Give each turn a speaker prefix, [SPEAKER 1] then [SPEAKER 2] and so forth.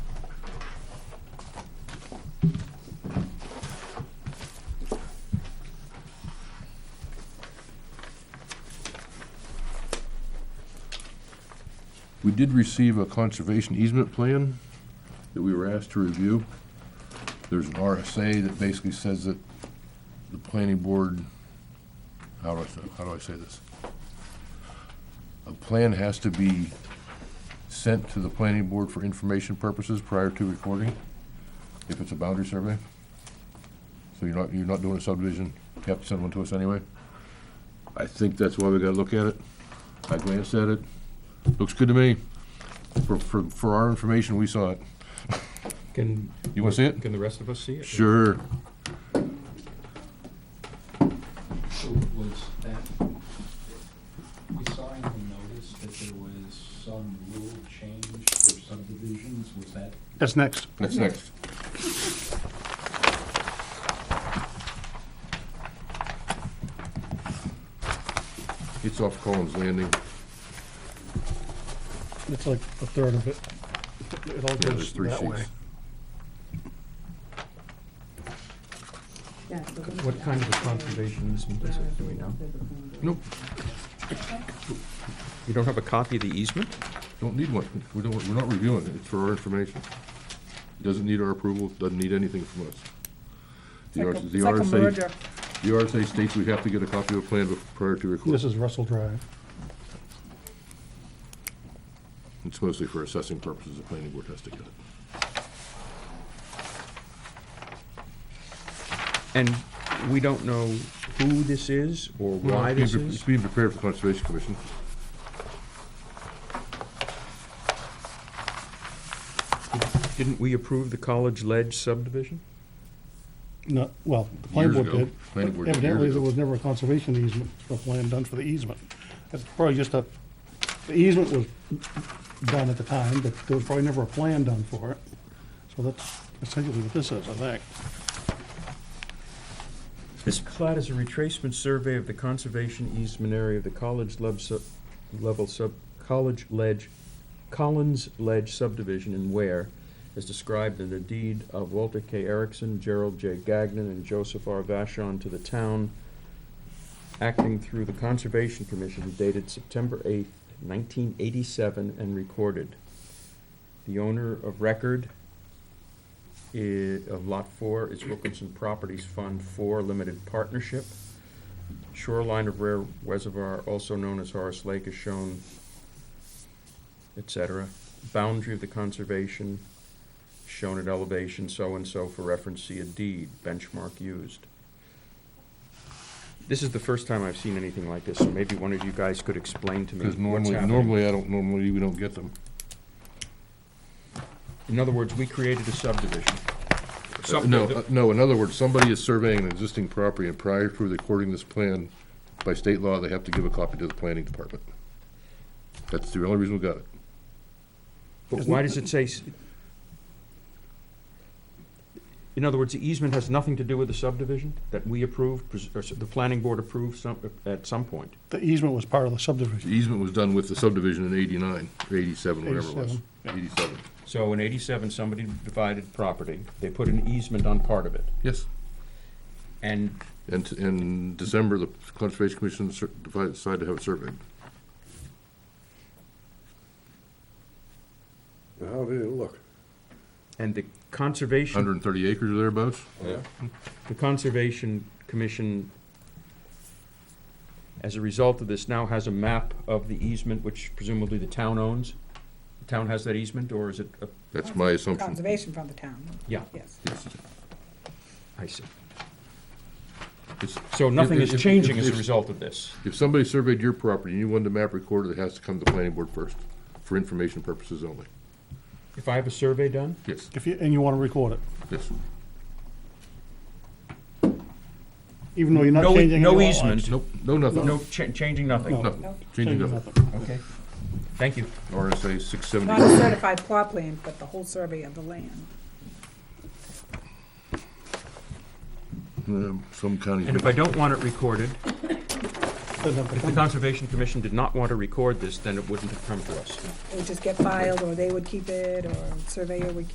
[SPEAKER 1] We did receive a conservation easement plan that we were asked to review. There's an RSA that basically says that the planning board, how do I, say- how do I say this? A plan has to be sent to the planning board for information purposes prior to recording, if it's a boundary survey. So you're not, you're not doing a subdivision, you have to send one to us anyway. I think that's why we gotta look at it. I glanced at it, looks good to me. For, for, for our information, we saw it.
[SPEAKER 2] Can,
[SPEAKER 1] You wanna see it?
[SPEAKER 2] can the rest of us see it?
[SPEAKER 1] Sure.
[SPEAKER 3] So was that, we saw in the notice that there was some rule change for subdivisions, was that?
[SPEAKER 4] That's next.
[SPEAKER 1] That's next. It's off Collins Landing.
[SPEAKER 4] It's like a third of it. It all
[SPEAKER 1] Yeah, there's
[SPEAKER 4] goes
[SPEAKER 1] three
[SPEAKER 4] that way.
[SPEAKER 1] sheets.
[SPEAKER 2] What kind of a conservation easement is it, do we know?
[SPEAKER 1] Nope,
[SPEAKER 2] You don't have a copy of the easement?
[SPEAKER 1] don't need one. We don't, we're not reviewing it. It's for our information. It Doesn't need our approval, doesn't need anything from us. The R- the RSA The RSA states we have to get a copy of a plan bef- prior to
[SPEAKER 4] This
[SPEAKER 1] record.
[SPEAKER 4] is Russell Drive.
[SPEAKER 1] It's mostly for assessing purposes, the planning board has to get it.
[SPEAKER 2] And we don't know who this is or why
[SPEAKER 1] It's
[SPEAKER 2] this
[SPEAKER 1] being pre-
[SPEAKER 2] is?
[SPEAKER 1] It's being prepared for Conservation Commission.
[SPEAKER 2] Didn't we approve the College Ledge subdivision?
[SPEAKER 4] No, well, the planning
[SPEAKER 1] Years
[SPEAKER 4] board
[SPEAKER 1] ago.
[SPEAKER 4] did.
[SPEAKER 1] Planning board
[SPEAKER 4] but
[SPEAKER 1] did years
[SPEAKER 4] Evidently,
[SPEAKER 1] ago.
[SPEAKER 4] there was never a conservation easement, or plan done for the easement. That's probably just a, the easement was done at the time, but there was probably never a plan done for it. So that's essentially what this is, I think.
[SPEAKER 2] This plat is a retracement survey of the conservation easement area of the college leb sub, level sub, college ledge, Collins Ledge subdivision in Ware, as described in the deed of Walter K. Erickson, Gerald J. Gagnon, and Joseph R. Vashon to the town, acting through the Conservation Commission dated September eighth, nineteen eighty-seven, and recorded. The owner of record i- of Lot 4 is Wilkinson Properties Fund 4 Limited Partnership. Shoreline of Rare Reservoir, also known as Horace Lake, is shown, et cetera. Boundary of the conservation, shown at elevation so-and-so for reference, see a deed, benchmark used. This is the first time I've seen anything like this, so maybe one of you guys could explain to me
[SPEAKER 1] Because
[SPEAKER 2] what's
[SPEAKER 1] normally,
[SPEAKER 2] happening.
[SPEAKER 1] normally, I don't, normally, we don't get them.
[SPEAKER 2] In other words, we created a subdivision.
[SPEAKER 1] Uh, No, uh, no, in other words, somebody is surveying an existing property, and prior to recording this plan, by state law, they have to give a copy to the planning department. That's the only reason we got it.
[SPEAKER 2] But why does it say? s- In other words, the easement has nothing to do with the subdivision that we approved, pres- or s- the planning board approved some, at some point?
[SPEAKER 4] The easement was part of the
[SPEAKER 1] The
[SPEAKER 4] subdivision.
[SPEAKER 1] easement was done with the subdivision in eighty-nine, or eighty-seven, whatever it was. Eighty-seven.
[SPEAKER 2] So in eighty-seven, somebody divided property, they put an easement on part of it,
[SPEAKER 1] Yes.
[SPEAKER 2] and
[SPEAKER 1] And t- in December, the Conservation Commission cer- divided- decided to have it surveyed.
[SPEAKER 5] How did it look?
[SPEAKER 2] and the conservation,
[SPEAKER 1] Hundred and thirty acres or thereabouts?
[SPEAKER 5] Yeah.
[SPEAKER 2] the conservation commission, as a result of this, now has a map of the easement, which presumably the town owns. The town has that easement, or is it? a-
[SPEAKER 1] That's my assumption.
[SPEAKER 6] Conservation from the town,
[SPEAKER 2] Yeah,
[SPEAKER 6] yes.
[SPEAKER 1] Yes.
[SPEAKER 2] I see.
[SPEAKER 1] It's-
[SPEAKER 2] So nothing
[SPEAKER 1] If-
[SPEAKER 2] is
[SPEAKER 1] if-
[SPEAKER 2] changing
[SPEAKER 1] if-
[SPEAKER 2] as a
[SPEAKER 1] if-
[SPEAKER 2] result of this.
[SPEAKER 1] If somebody surveyed your property and you wanted a map recorded, it has to come to the planning board first, for information purposes only.
[SPEAKER 2] If I have a survey done,
[SPEAKER 1] Yes,
[SPEAKER 4] If you, and you want to record it,
[SPEAKER 1] yes.
[SPEAKER 4] even though you're not
[SPEAKER 2] No e-
[SPEAKER 4] changing any
[SPEAKER 2] no
[SPEAKER 4] lot lines.
[SPEAKER 2] easement.
[SPEAKER 1] Nope, no, nothing.
[SPEAKER 2] no, cha- changing nothing.
[SPEAKER 1] No,
[SPEAKER 6] Nope.
[SPEAKER 1] changing
[SPEAKER 4] Changing
[SPEAKER 1] nothing.
[SPEAKER 4] nothing.
[SPEAKER 2] Okay, thank you.
[SPEAKER 1] RSA six
[SPEAKER 6] Not a
[SPEAKER 1] seventy.
[SPEAKER 6] certified plot plan, but the whole survey of the land.
[SPEAKER 1] Some counties.
[SPEAKER 2] And if I don't want it recorded,
[SPEAKER 4] Doesn't have to
[SPEAKER 2] if the
[SPEAKER 4] come.
[SPEAKER 2] Conservation Commission did not want to record this, then it wouldn't have come to us.
[SPEAKER 6] It would just get filed, or they would keep it, or surveyor would keep